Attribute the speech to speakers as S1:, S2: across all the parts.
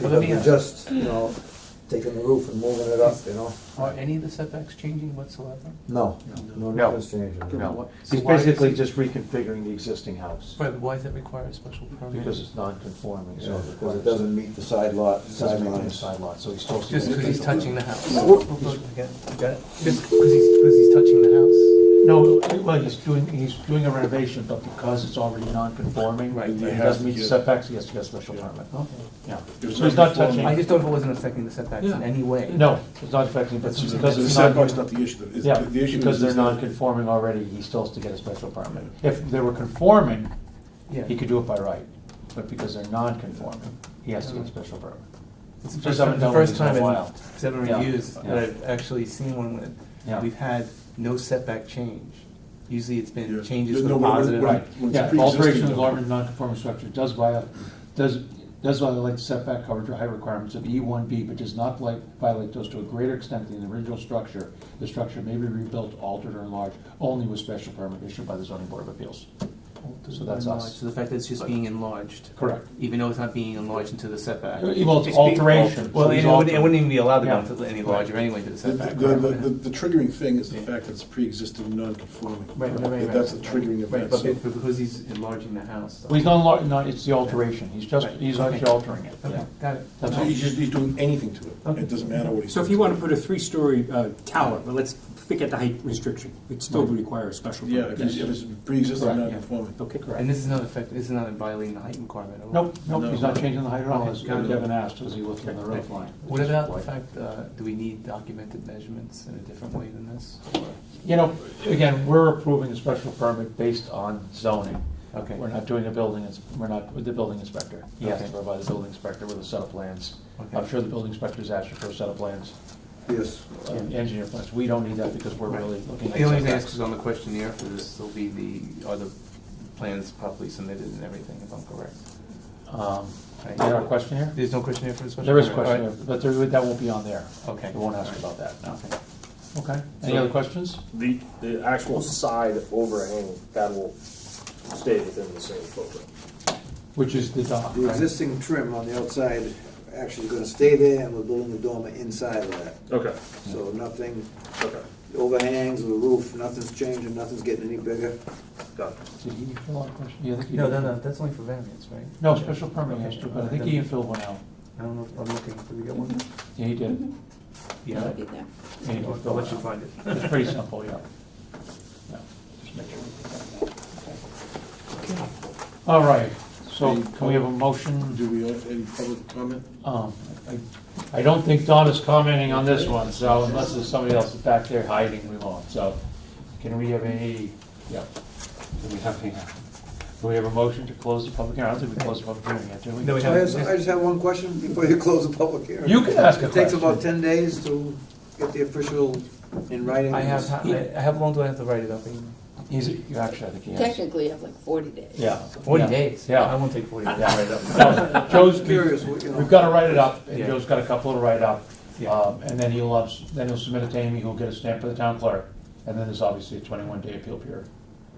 S1: Because
S2: me
S1: we're
S2: ask.
S1: just, you know, taking the roof and moving it up, you know?
S2: Are any of the setbacks changing whatsoever?
S1: No, no
S3: No.
S1: difference changing.
S3: No,
S2: So
S3: he's
S2: why is
S3: basically
S2: it-
S3: just reconfiguring the existing house,
S2: Right, but why does that require a special permit?
S3: because it's non-conforming, so.
S1: Yeah,
S3: it
S1: Because it
S3: requires-
S1: doesn't meet the side lot,
S3: it
S1: side
S3: doesn't meet the
S1: lines.
S3: Side lot, so he's supposed to.
S2: Just because he's touching the house?
S4: Got it?
S2: Just because he's, because he's touching the house?
S3: No, well, he's doing, he's doing a renovation, but because it's already non-conforming,
S2: Right.
S3: and
S2: They
S3: it
S5: have
S3: doesn't
S5: to
S3: meet the
S5: get-
S3: setbacks, he has to get a special permit. Yeah,
S5: If it's
S3: so he's not
S5: non-conforming-
S3: touching,
S2: I just don't know if it wasn't affecting the setbacks in
S3: Yeah.
S2: any way.
S3: no, it's not affecting, but
S2: That's what I'm
S3: because
S5: So The
S3: it's not.
S5: setback's not the issue, the,
S3: Yeah,
S5: the- the issue is.
S3: because they're
S5: is
S3: non-conforming already, he still has to get a special permit. If they were conforming,
S2: Yeah.
S3: he could do it by right, but because they're non-conforming, he has to get a special permit.
S2: It's the
S3: Just
S2: first time,
S3: haven't
S2: the
S3: done one
S2: first
S3: in a
S2: time in
S3: while.
S2: seven
S3: Yeah.
S2: reviews
S3: Yeah.
S2: that I've actually seen one when
S3: Yeah.
S2: we've had no setback change. Usually it's been
S5: Yeah.
S2: changes
S5: Yeah,
S2: for the
S5: no, when- when-
S2: positive.
S5: when-
S3: Right,
S5: Well, it's
S3: yeah,
S5: pre-existing,
S3: alteration of the
S5: though.
S3: garment non-conforming structure does violate, does, does violate setback coverage or height requirements of E one B, but does not vi- violate those to a greater extent than the original structure. The structure may be rebuilt, altered, or enlarged only with special permit issued by the zoning board of appeals. So that's us.
S2: So the fact that it's just being enlarged,
S3: Correct.
S2: even though it's not being enlarged into the setback.
S3: Well, it's
S4: being
S3: alteration.
S2: Well,
S3: so
S2: it wouldn't,
S3: he's
S2: it
S3: altering.
S2: wouldn't even be allowed to
S3: Yeah.
S2: go into any larger anyway to the
S5: The, the,
S2: setback.
S5: the,
S2: right?
S5: the- the triggering thing is the
S2: Yeah.
S5: fact that it's pre-existing non-conforming.
S2: Right, right, right, right.
S5: That's the triggering
S2: Right,
S5: event,
S2: but
S5: so.
S2: be- because he's enlarging the house.
S3: Well, he's not, enlar- no, it's the alteration, he's just,
S2: Right.
S3: he's
S2: Okay.
S3: actually altering it, yeah.
S2: Okay, got it.
S3: That's
S5: so
S3: all.
S5: he's just, he's doing anything to it,
S2: Okay.
S5: it doesn't matter what he's.
S4: So if you want to put a three-story uh, tower, but let's forget the height restriction, it still would require a special
S5: Yeah, if
S4: permit.
S5: it's, if it's pre-existing
S3: Correct, yeah.
S5: non-conforming.
S4: Okay,
S2: And this is not affect, this is not violating the height requirement at all?
S3: Nope, nope, he's not
S5: No.
S3: changing the height at all, as
S2: Got it.
S3: Devin asked, was he looking at the roof line?
S2: What about the fact, uh, do we need documented measurements in a different way than this? Or-
S3: You know, again, we're approving a special permit based on zoning.
S2: Okay.
S3: We're not doing a building, ins- we're not, with the building inspector. He has to
S2: Okay.
S3: provide the building inspector with a set of plans.
S2: Okay.
S3: I'm sure the building inspector's asking for a set of plans,
S1: Yes.
S3: uh, engineer plans. We don't need that because we're really looking at.
S2: The only thing I ask
S3: setbacks.
S2: is on the questionnaire for this, will be the, are the plans properly submitted and everything, if I'm correct?
S3: Um, Is there a question here?
S2: There's no questionnaire for this one?
S3: There is a
S2: All right.
S3: question, but there, that won't be on there.
S2: Okay.
S3: They won't ask about that, no.
S2: Okay.
S3: Okay. Any other questions?
S6: The, the actual side overhang, that will stay within the same footprint.
S3: Which is the dock,
S1: The
S3: right?
S1: existing trim on the outside actually gonna stay there, and we're building the dormer inside of that.
S6: Okay,
S1: So nothing
S6: okay,
S1: overhangs of the roof, nothing's changing, nothing's getting any bigger.
S6: got it.
S3: Did he fill out a question? Yeah, I think he
S2: No,
S3: did.
S2: no, no, that's only for variance, right?
S3: No, special permit, yes,
S2: Okay.
S3: but I think he filled one out.
S2: I don't know, if I'm looking, did we get one?
S3: Yeah, he did.
S2: Yeah,
S7: Be there.
S3: Mm-hmm. Yeah, he did
S2: Mm-hmm. I'll
S3: fill
S2: I'll let
S3: one
S2: you
S3: out.
S2: find it.
S3: It's pretty simple, yeah. Yeah, just make sure we get that. Okay. All right, so can we have a motion?
S5: Do we have any public comment?
S3: Um, I I don't think Don is commenting on this one, so unless there's somebody else back there hiding, we won't, so. Can we have any, yeah, do we have any, do we have a motion to close the public hearing? I don't think we closed the public hearing yet, do we?
S2: No, we
S1: I just, I just have one question before you close the public hearing.
S3: You can ask a
S1: It takes
S3: question.
S1: about ten days to get the official in writing.
S2: I have, I have, how long do I have to write it up in?
S3: He's, you actually, I think he has.
S7: Technically, you have like forty days.
S3: Yeah.
S2: Forty
S3: yeah,
S2: days? I
S3: Yeah.
S2: won't take forty days to
S3: Yeah.
S2: write it up.
S3: No, Joe's,
S1: Curious, what, you know.
S3: we've got to write it up, and
S2: Yeah.
S3: Joe's got a couple to write up.
S2: Yeah.
S3: Um, And then he'll, ups- then he'll submit it to Amy, who'll get a stamp by the town clerk. And then there's obviously a 21-day appeal period,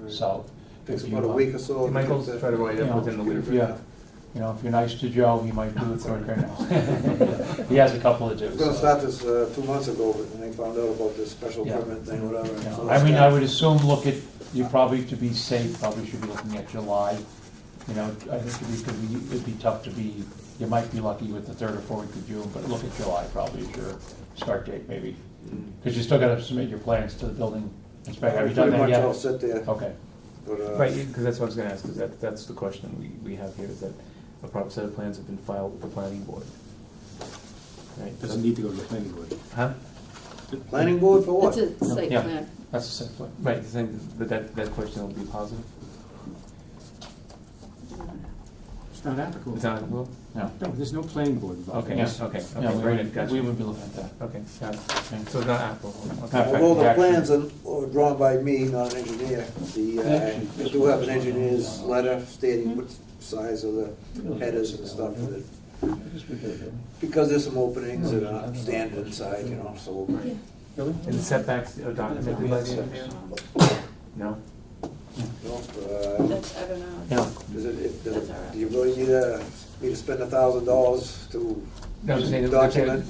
S3: so. if
S1: Takes
S3: you,
S1: about a
S3: uh,
S1: week or so. to
S2: My
S1: get
S2: goal is to
S1: the-
S2: try to write it
S3: you
S2: up
S3: know,
S2: within the week.
S3: if you- You know, if you're nice to Joe, he might do it quicker now. He has a couple to
S1: I
S3: do.
S1: was gonna
S3: so.
S1: start this, uh, two months ago, but then they found out about this special
S3: Yeah.
S1: permit thing, whatever.
S3: Yeah,
S1: so
S3: I mean,
S1: it's-
S3: I would assume, look at, you probably, to be safe, probably should be looking at July. You know, I think it'd be, could be- it'd be tough to be, you might be lucky with the third or fourth of June, but look at July probably is your start date maybe.
S2: Mm.
S3: Because you still gotta submit your plans to the building inspector. Have you done
S1: Pretty much
S3: that
S1: all
S3: yet? Oh.
S1: set there,
S3: Okay,
S1: but, uh,
S2: Right, because that's what I was gonna ask, because that, that's the question we, we have here, is that a proper set of plans have been filed with the planning board. Right?
S4: doesn't need to go to the planning board.
S2: Huh?
S1: planning board for what?
S7: It's a site
S3: Yeah.
S7: plan.
S3: that's the same thing.
S2: Right, the same, but that, that question will be positive?
S4: It's not applicable.
S2: It's not, well,
S3: No.
S4: No, there's no planning board involved.
S2: Okay,
S3: Yeah.
S2: okay,
S3: Yeah,
S2: okay,
S3: we
S2: very
S3: would-
S2: good, gotcha.
S3: We would be looking at that.
S2: Okay, got it.
S3: Okay.
S2: So it's not applicable, okay.
S3: Perfect.
S1: Although the
S3: Action.
S1: plans are are drawn by me, not an engineer, the, uh,
S3: Action.
S1: I do have an engineer's letter stating what size of the headers and stuff. that- Because there's some openings that are standard inside, you know, so.
S2: And the setbacks are documented by the engineer? No?
S1: you know, uh,
S7: That's, I don't know.
S3: Yeah.
S1: Does it, it, does
S7: That's all
S1: it-
S7: right.
S1: do you really need a
S2: me to spend a thousand dollars to
S1: No, I'm saying, I'm saying-
S2: document